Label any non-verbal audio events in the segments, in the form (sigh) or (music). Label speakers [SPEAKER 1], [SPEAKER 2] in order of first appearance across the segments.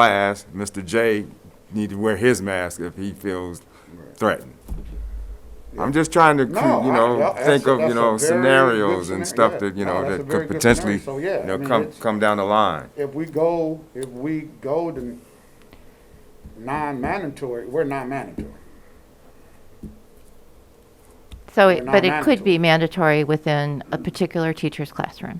[SPEAKER 1] class, Mr. J need to wear his mask if he feels threatened. I'm just trying to,
[SPEAKER 2] No,
[SPEAKER 1] cre- you
[SPEAKER 2] I-
[SPEAKER 1] know,
[SPEAKER 2] that- that's
[SPEAKER 1] think
[SPEAKER 2] a-
[SPEAKER 1] of,
[SPEAKER 2] that's
[SPEAKER 1] you
[SPEAKER 2] a
[SPEAKER 1] know,
[SPEAKER 2] very good
[SPEAKER 1] scenarios and
[SPEAKER 2] scenario.
[SPEAKER 1] stuff
[SPEAKER 2] Yeah.
[SPEAKER 1] that, you
[SPEAKER 2] No,
[SPEAKER 1] know,
[SPEAKER 2] that's a
[SPEAKER 1] that
[SPEAKER 2] very
[SPEAKER 1] could
[SPEAKER 2] good
[SPEAKER 1] potentially,
[SPEAKER 2] scenario. So, yeah,
[SPEAKER 1] you
[SPEAKER 2] I
[SPEAKER 1] know,
[SPEAKER 2] mean,
[SPEAKER 1] come,
[SPEAKER 2] it's-
[SPEAKER 1] come down the line.
[SPEAKER 2] If we go, if we go to non-mandatory, we're non-mandatory.
[SPEAKER 3] So,
[SPEAKER 2] They're
[SPEAKER 3] it-
[SPEAKER 2] not
[SPEAKER 3] but it could
[SPEAKER 2] mandatory.
[SPEAKER 3] be mandatory within a particular teacher's classroom.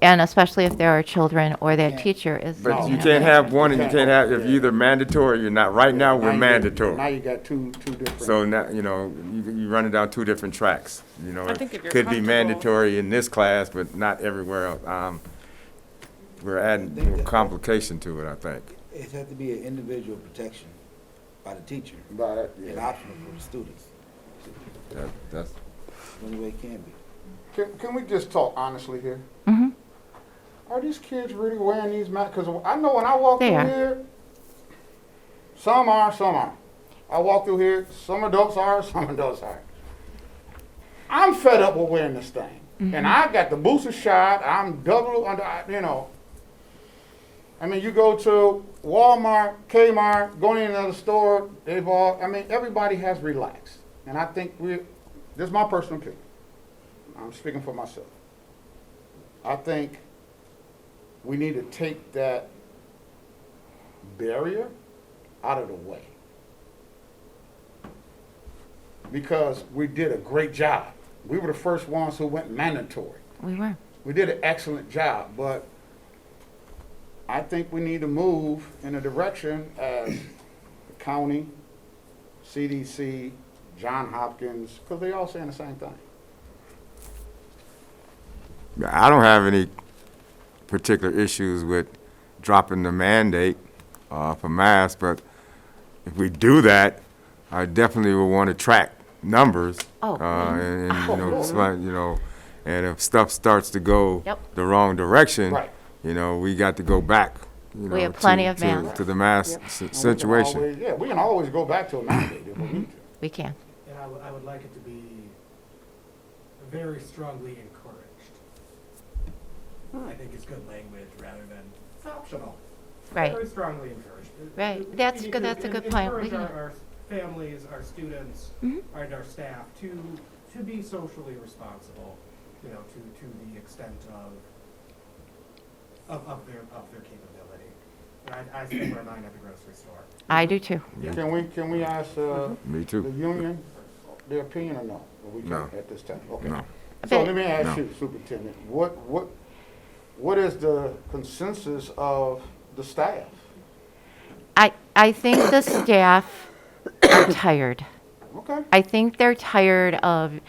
[SPEAKER 3] And especially if there are children or that teacher is.
[SPEAKER 1] But
[SPEAKER 2] No.
[SPEAKER 1] you can't have one and you
[SPEAKER 2] Yeah.
[SPEAKER 1] can't have, if you're either mandatory or you're not. Right now,
[SPEAKER 2] Now
[SPEAKER 1] we're
[SPEAKER 2] you got- Now
[SPEAKER 1] mandatory.
[SPEAKER 2] you got two, two different.
[SPEAKER 1] So now, you know, you, you running down two different tracks, you know.
[SPEAKER 4] I
[SPEAKER 1] it
[SPEAKER 4] think if you're
[SPEAKER 1] Could be
[SPEAKER 4] comfortable-
[SPEAKER 1] mandatory in this class, but not everywhere else. Um, we're adding
[SPEAKER 5] think
[SPEAKER 1] more
[SPEAKER 5] that-
[SPEAKER 1] complication to it, I think.
[SPEAKER 5] It had to be an individual protection by the teacher
[SPEAKER 2] But,
[SPEAKER 5] and
[SPEAKER 2] yeah.
[SPEAKER 5] optional for the students.
[SPEAKER 1] That, that's,
[SPEAKER 5] The only way it can be.
[SPEAKER 2] Can, can we just talk honestly here?
[SPEAKER 3] hmm
[SPEAKER 2] Are these kids really wearing these masks? Because I know when I walk
[SPEAKER 3] They
[SPEAKER 2] through
[SPEAKER 3] are.
[SPEAKER 2] here, some are, some aren't. I walk through here, some adults are, (laughs) some adults aren't. I'm fed up with wearing this thing.
[SPEAKER 3] Mm-hmm.
[SPEAKER 2] And I got the booster shot. I'm double under, I- you know. I mean, you go to Walmart, Kmart, go to another store, they've all, I mean, everybody has relaxed. And I think we, this is my personal opinion. I'm speaking for myself. I think we need to take that barrier out of the way. Because we did a great job. We were the first ones who went mandatory.
[SPEAKER 3] we were.
[SPEAKER 2] We did an excellent job, but I think we need to move in a direction as the county, CDC, John Hopkins, because they all saying the same thing.
[SPEAKER 1] I don't have any particular issues with dropping the mandate uh, for masks, but if we do that, I definitely would want to track numbers.
[SPEAKER 3] Oh.
[SPEAKER 1] uh, and, and, you
[SPEAKER 2] Oh,
[SPEAKER 1] know,
[SPEAKER 2] yeah.
[SPEAKER 1] it's like, you know, and if stuff starts to go
[SPEAKER 3] Yep.
[SPEAKER 1] the wrong direction,
[SPEAKER 2] Right.
[SPEAKER 1] you know, we got to go back. You know,
[SPEAKER 3] We have plenty
[SPEAKER 1] to,
[SPEAKER 3] of
[SPEAKER 1] to-
[SPEAKER 3] masks.
[SPEAKER 1] to the mask si-
[SPEAKER 2] And we can
[SPEAKER 1] situation.
[SPEAKER 2] always- Yeah, we can always go back to a mandate if we need to.
[SPEAKER 3] We can.
[SPEAKER 6] And I would, I would like it to be very strongly encouraged.
[SPEAKER 3] Hmm.
[SPEAKER 6] I think it's good language rather than it's optional.
[SPEAKER 3] Right.
[SPEAKER 6] Very strongly encouraged. It-
[SPEAKER 3] Right.
[SPEAKER 6] it- we
[SPEAKER 3] That's
[SPEAKER 6] need
[SPEAKER 3] good-
[SPEAKER 6] to
[SPEAKER 3] that's a
[SPEAKER 6] en-
[SPEAKER 3] good point. We
[SPEAKER 6] Encourage
[SPEAKER 3] can- Mm-hmm.
[SPEAKER 6] our, our families, our students, and our staff to, to be socially responsible, you know, to, to the extent of, of, of their, of their capability. And I, I spend my mind at the grocery store.
[SPEAKER 3] I do too.
[SPEAKER 2] Can we, can we ask uh,
[SPEAKER 1] Me
[SPEAKER 2] the
[SPEAKER 1] too.
[SPEAKER 2] union their opinion or no? Or we
[SPEAKER 1] No.
[SPEAKER 2] can't at this time? Okay.
[SPEAKER 1] No.
[SPEAKER 2] So
[SPEAKER 3] But-
[SPEAKER 2] let me
[SPEAKER 1] No.
[SPEAKER 2] ask you, Superintendent, what, what, what is the consensus of the staff?
[SPEAKER 3] I, I think the staff are (coughs) tired.
[SPEAKER 2] Okay,
[SPEAKER 3] I think they're tired of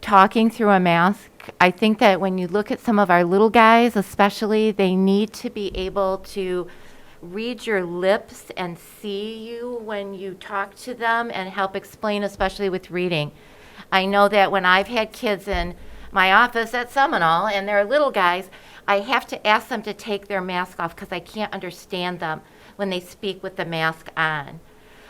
[SPEAKER 3] talking through a mask. I think that when you look at some of our little guys, especially, they need to be able to read your lips and see you when you talk to them and help explain, especially with reading. I know that when I've had kids in my office at Seminole and they're little guys, I have to ask them to take their mask off because I can't understand them when they speak with the mask on.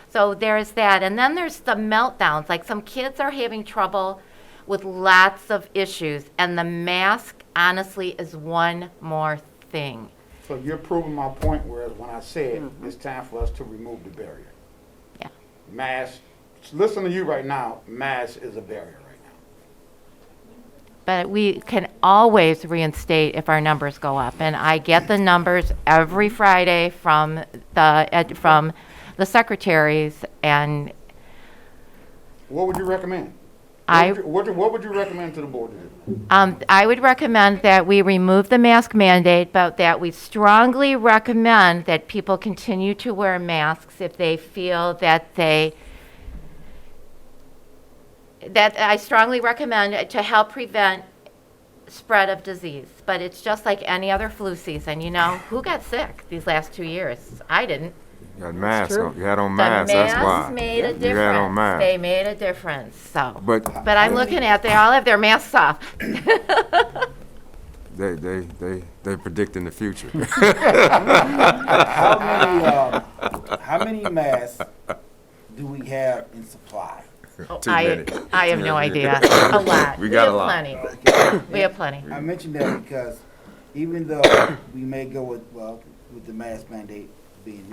[SPEAKER 3] So there's that. And then there's the meltdowns. Like some kids are having trouble with lots of issues, and the mask honestly is one more thing.
[SPEAKER 2] so you're proving my point, whereas when I said it's time for us to remove the barrier.
[SPEAKER 3] Mm-hmm. Yeah.
[SPEAKER 2] Mass, listen to you right now, mass is a barrier right now.
[SPEAKER 3] But we can always reinstate if our numbers go up. And I get the numbers every Friday from the ed, from the secretaries, and
[SPEAKER 2] What would you recommend? What
[SPEAKER 3] I-
[SPEAKER 2] would you- What, do- what would you recommend to the board to do?
[SPEAKER 3] Um, I would recommend that we remove the mask mandate, but that we strongly recommend that people continue to wear masks if they feel that they, that I strongly recommend to help prevent spread of disease. But it's just like any other flu season, you know? Who got sick these last two years? I didn't.
[SPEAKER 1] You had masks on, you had on
[SPEAKER 3] The
[SPEAKER 1] masks, that's why.
[SPEAKER 3] masks made a
[SPEAKER 1] You had on
[SPEAKER 3] difference. They
[SPEAKER 1] masks.
[SPEAKER 3] made a difference, so.
[SPEAKER 1] But
[SPEAKER 3] But I'm looking at, they all have their masks off.
[SPEAKER 1] they, they, they, they predicting the future. (laughs)
[SPEAKER 5] How many, um, how many masks do we have in supply?
[SPEAKER 3] Oh,
[SPEAKER 1] Too
[SPEAKER 3] I,
[SPEAKER 1] many.
[SPEAKER 3] I have no idea.
[SPEAKER 1] (laughs)
[SPEAKER 3] A lot.
[SPEAKER 1] We got
[SPEAKER 3] have
[SPEAKER 1] a lot.
[SPEAKER 3] Plenty. We have plenty.
[SPEAKER 5] I mentioned that because even though we may go with, well, with the mask mandate, being